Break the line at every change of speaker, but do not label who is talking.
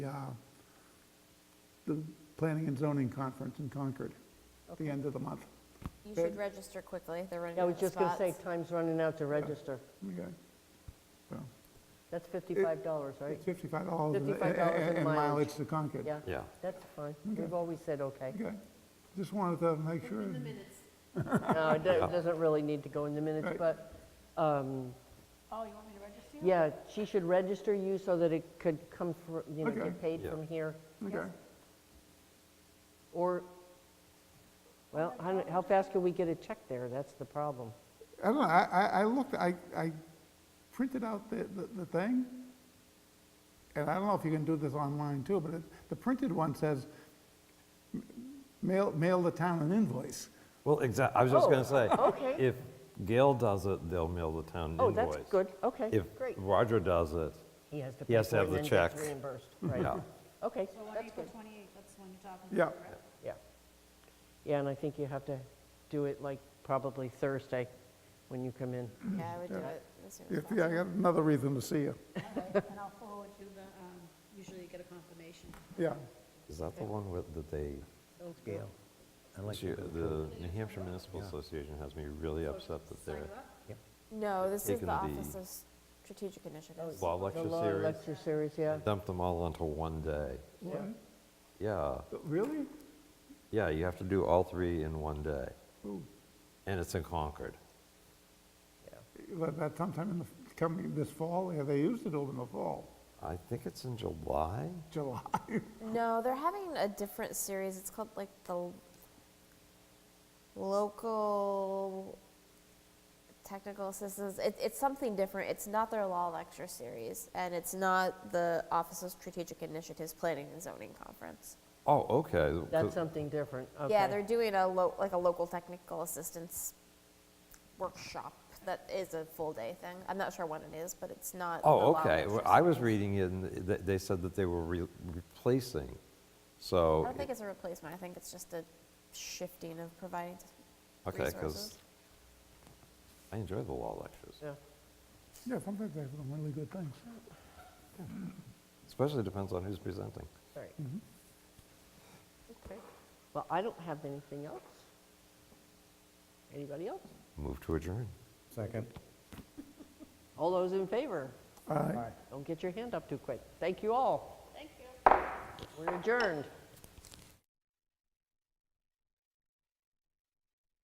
uh, the Planning and Zoning Conference in Concord at the end of the month.
You should register quickly, they're running
I
out
was
of
just going to say,
spots.
time's running out to register.
Okay. So,
That's $55, right?
It's $55. and-
$55 and
And
mileage.
mileage to Concord.
Yeah?
Yeah.
That's fine.
Okay.
We've always said, okay.
Okay. Just wanted to make sure.
No, it do-
Yeah.
doesn't really need to go in the minutes,
Right.
but, um,
Oh, you want me to register you?
yeah, she should register you so that it could come, fr- you know,
Okay.
get paid
Yeah.
from here.
Okay.
Or, well, how how fast can we get a check there? That's the problem.
I don't know, I, I, I looked, I, I printed out the, the, the thing, and I don't know if you can do this online too, but it, the printed one says, m- mail, mail the town an invoice.
Well, exactly, I was just going to say.
Oh, okay.
If Gail does it, they'll mail the town
Oh,
invoice.
that's good, okay,
If
great.
Roger does it,
He has to
he
pay
has to
for it
have
and
the
then gets
check.
reimbursed, right?
yeah.
Okay,
So on
that's
April
good,
28th, that's when you're talking
Yeah.
about, right?
yeah. Yeah, and I think you have to do it like probably Thursday when you come in.
Mm-hmm. Yeah, I would do it as soon as
If, yeah, I
possible.
got another reason to see you,
All right, And I'll forward you the, um, usually you get a confirmation.
yeah.
Is that the one with, that they,
Gail.
she- the New Hampshire Municipal Association has me really upset that
Sign
they're,
you up?
No, this is
taken
the Office
the-
of Strategic Initiatives.
law
The
lecture
law
series,
lecture series, yeah.
dumped them all onto one day.
What?
Yeah,
Really?
yeah, you have to do all three in one day,
Ooh,
and it's in Concord.
That, that sometime in the, f- coming this fall, yeah, they used it over in the fall,
I think it's in July?
July.
No, they're having a different series. It's called like the l- local technical assistance. It, it's something different. It's not their law lecture series, and it's not the Office of Strategic Initiatives Planning and Zoning Conference.
Oh, okay.
That's something different, okay.
Yeah, they're doing a lo- like a local technical assistance workshop that is a full day thing. I'm not sure when it is, but it's not. the
Oh,
law
okay.
lecture
Well, I was
series.
reading in, th- they said that they were re- replacing,
I
so.
don't think it's a replacement. I think it's just a shifting of providing
Okay,
resources.
because I enjoy the law lectures,
Yeah.
Yeah, sometimes they have some really good things.
especially depends on who's presenting.
Right.
Mm-hmm.
Okay. Well, I don't have anything else. Anybody else?
Move to adjourn.
Second.
All those in favor?
All right.
Don't get your hand up too quick. Thank you all.
Thank you.
We're adjourned.